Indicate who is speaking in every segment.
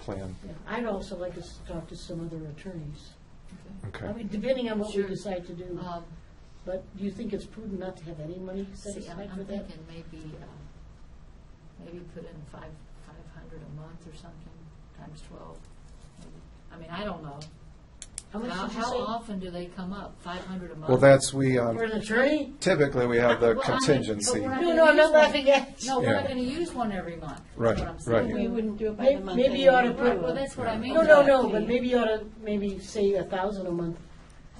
Speaker 1: plan.
Speaker 2: I'd also like us to talk to some other attorneys. I
Speaker 1: Okay.
Speaker 2: mean, depending on what we
Speaker 3: Sure.
Speaker 2: decide to do,
Speaker 3: Um,
Speaker 2: but do you think it's prudent not to have any money set
Speaker 3: See, I'm
Speaker 2: aside for
Speaker 3: I'm
Speaker 2: that?
Speaker 3: thinking maybe, uh, maybe put in five, five hundred a month or something, times twelve. maybe. I mean, I don't know.
Speaker 2: How
Speaker 3: How,
Speaker 2: much did you
Speaker 3: how
Speaker 2: say?
Speaker 3: often do they come up? Five hundred a month?
Speaker 1: Well, that's, we,
Speaker 2: For
Speaker 1: um,
Speaker 2: an attorney?
Speaker 1: typically, we have the
Speaker 3: Well, I mean, but
Speaker 1: contingency.
Speaker 3: we're
Speaker 2: No, no, I'm not laughing at you.
Speaker 3: No, we're
Speaker 1: Yeah.
Speaker 3: not gonna use one every month, is
Speaker 1: Right,
Speaker 3: what I'm
Speaker 1: right.
Speaker 3: saying.
Speaker 4: We wouldn't do it by
Speaker 2: May-
Speaker 4: the month.
Speaker 2: maybe you ought to
Speaker 4: anyway.
Speaker 3: Right, well, that's what I mean.
Speaker 2: No, no,
Speaker 3: by-
Speaker 2: no, but maybe you ought to, maybe say a thousand a month.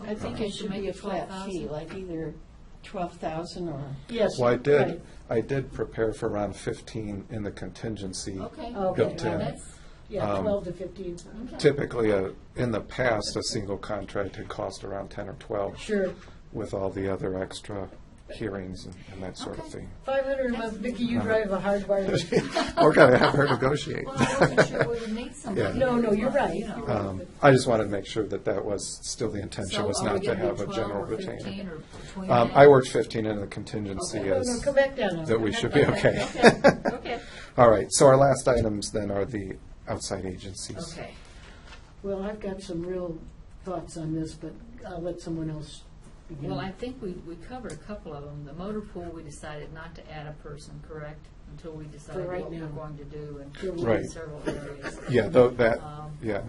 Speaker 4: I think it should
Speaker 3: Make
Speaker 4: be a
Speaker 3: it
Speaker 4: flat
Speaker 3: 12,000.
Speaker 4: fee, like either twelve thousand or,
Speaker 2: Yes.
Speaker 1: Well, I
Speaker 2: right.
Speaker 1: did, I did prepare for around fifteen in the contingency.
Speaker 3: Okay.
Speaker 2: Okay.
Speaker 1: Built in.
Speaker 3: That's-
Speaker 2: Yeah,
Speaker 1: Um,
Speaker 2: twelve to fifteen.
Speaker 3: okay.
Speaker 1: Typically, uh, in the past, a single contract had cost around ten or twelve
Speaker 2: Sure.
Speaker 1: with all the other extra hearings and- and that sort of
Speaker 3: Okay.
Speaker 1: thing.
Speaker 2: Five hundred a month, Vicki,
Speaker 1: Uh-huh.
Speaker 2: you drive a hard bargain.
Speaker 1: We're gonna have her negotiate.
Speaker 3: Well, I wasn't sure we would need somebody.
Speaker 1: Yeah.
Speaker 2: No, no, you're right,
Speaker 3: You know.
Speaker 2: you're right.
Speaker 1: Um, I just wanted to make sure that that was, still the intention
Speaker 3: So
Speaker 1: was
Speaker 3: are we
Speaker 1: not to
Speaker 3: gonna do
Speaker 1: have a
Speaker 3: 12
Speaker 1: general
Speaker 3: or
Speaker 1: retainer.
Speaker 3: 15 or between
Speaker 1: Um,
Speaker 3: that?
Speaker 1: I worked fifteen in the contingency
Speaker 2: No, no,
Speaker 1: as,
Speaker 2: come back down now.
Speaker 1: that we should be okay.
Speaker 3: Okay.
Speaker 1: All right, so our last items then are the outside agencies.
Speaker 3: Okay.
Speaker 2: Well, I've got some real thoughts on this, but I'll let someone else begin.
Speaker 3: Well, I think we, we covered a couple of them. The motor pool, we decided not to add a person, correct? Until we decide
Speaker 2: For right
Speaker 3: what we're
Speaker 2: now.
Speaker 3: going to do
Speaker 2: Sure.
Speaker 3: and
Speaker 1: Right.
Speaker 3: several areas.
Speaker 1: Yeah, though, that,
Speaker 3: Um,
Speaker 1: yeah,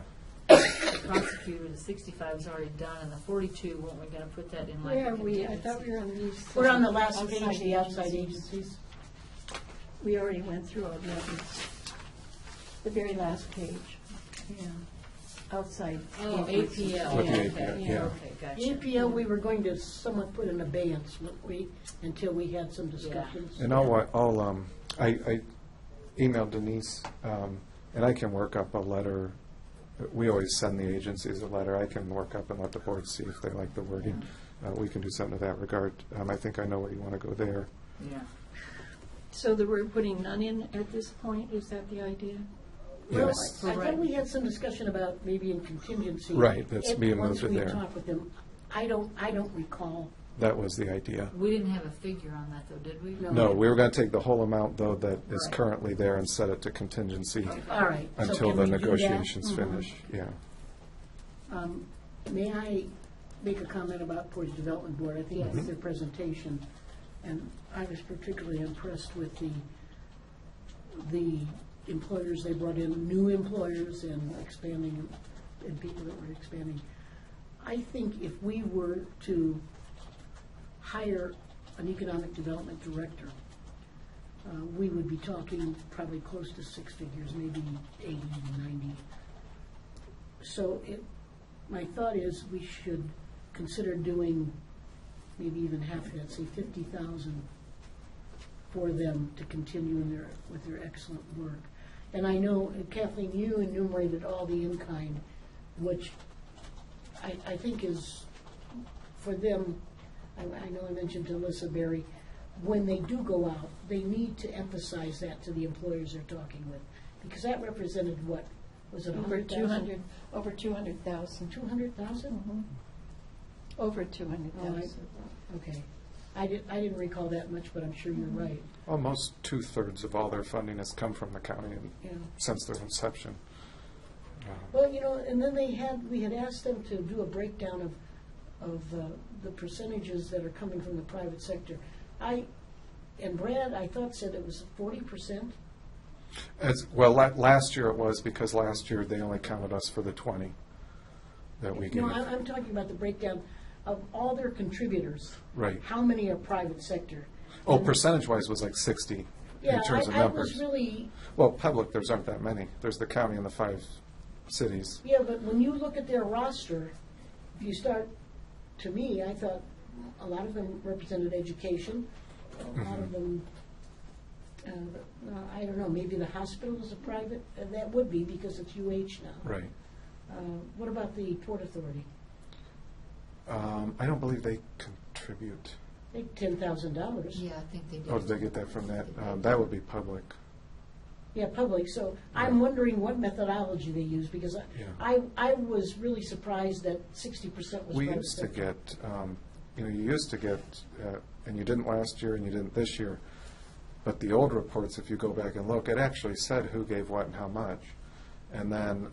Speaker 3: Prosecutor, the sixty-five is already done, and the forty-two, weren't we gonna put that in like?
Speaker 4: where
Speaker 3: a
Speaker 4: are we? I thought
Speaker 3: contingency?
Speaker 4: we were on these.
Speaker 2: We're on the last page,
Speaker 4: agencies.
Speaker 2: the outside agencies.
Speaker 4: We already went through all the others. The very last page,
Speaker 3: Yeah.
Speaker 4: outside.
Speaker 3: Oh,
Speaker 4: agencies.
Speaker 3: APL.
Speaker 1: With the
Speaker 3: okay,
Speaker 1: APL, yeah.
Speaker 3: Okay, gotcha.
Speaker 2: APL, we were going to somewhat put in abeyance, weren't we, until we had some discussions.
Speaker 1: and I'll, wa- I'll, um, I, I emailed Denise, um, and I can work up a letter. We always send the agencies a letter. I can work up and let the board see if they like the wording. Uh, we can do something to that regard. Um, I think I know where you want to go there.
Speaker 3: Yeah.
Speaker 4: So that we're putting none in at this point, is that the idea?
Speaker 2: Well,
Speaker 1: Yes.
Speaker 2: I I thought we had some discussion about maybe in contingency.
Speaker 1: Right, that's
Speaker 2: It-
Speaker 1: being moved in there.
Speaker 2: Once we talk with them, I don't, I don't recall.
Speaker 1: That was the idea.
Speaker 3: We didn't have a figure on that, though, did we?
Speaker 1: No, we were going to take the whole amount, though, that is
Speaker 3: Right.
Speaker 1: currently there and set it to contingency
Speaker 2: All right. so
Speaker 1: until
Speaker 2: can
Speaker 1: the
Speaker 2: we do that? Mm-hmm.
Speaker 1: negotiations finish. Yeah.
Speaker 2: Um, May I make a comment about Portage Development Board? I think it's their presentation, and I was particularly impressed with the, the employers they brought in, new employers and expanding, and people that were expanding. I think if we were to hire an economic development director, uh, we would be talking probably close to six figures, maybe 80, 90. So it, my thought is we should consider doing maybe even half of that, say fifty thousand for them to continue in their, with their excellent work. And I know Kathleen, you enumerated all the in-kind, which I, I think is, for them, I, I know I mentioned to Alyssa Berry, when they do go out, they need to emphasize that to the employers they're talking with, because that represented what, was it a
Speaker 4: Over
Speaker 2: hundred
Speaker 4: two
Speaker 2: thousand?
Speaker 4: hundred, over two hundred thousand,
Speaker 2: Two hundred thousand?
Speaker 4: over two hundred
Speaker 2: All right.
Speaker 4: thousand.
Speaker 2: Okay. I didn't, I didn't recall that much, but I'm sure you're right.
Speaker 1: Almost two-thirds of all their funding has come from the county and
Speaker 2: Yeah.
Speaker 1: since their inception.
Speaker 2: Well, you know, and then they had, we had asked them to do a breakdown of, of uh, the percentages that are coming from the private sector. I, and Brad, I thought said it was forty percent.
Speaker 1: As, well, la- last year it was because last year they only counted us for the twenty that we gave.
Speaker 2: No, I'm, I'm talking about the breakdown of all their contributors.
Speaker 1: Right.
Speaker 2: How many are private sector?
Speaker 1: Oh, percentage-wise was like sixty
Speaker 2: Yeah,
Speaker 1: in terms of
Speaker 2: I, I was
Speaker 1: numbers.
Speaker 2: really,
Speaker 1: Well, public, there's aren't that many. There's the county and the five cities.
Speaker 2: Yeah, but when you look at their roster, if you start, to me, I thought a lot of them represented education, a lot
Speaker 1: Mm-hmm.
Speaker 2: of them, uh, uh, I don't know, maybe the hospital is a private, uh, that would be because it's UH now.
Speaker 1: Right.
Speaker 2: Uh, What about the Port Authority?
Speaker 1: Um, I don't believe they contribute.
Speaker 2: They, ten thousand dollars.
Speaker 3: Yeah, I think they did.
Speaker 1: Oh, did they get that from that? Um, that would be public.
Speaker 2: Yeah, public, so I'm wondering what methodology they use, because I-
Speaker 1: Yeah.
Speaker 2: I, I was really surprised that sixty percent was
Speaker 1: We
Speaker 2: private
Speaker 1: used to
Speaker 2: sector.
Speaker 1: get, um, you know, you used to get, uh, and you didn't last year and you didn't this year, but the old reports, if you go back and look, it actually said who gave what and how much. And then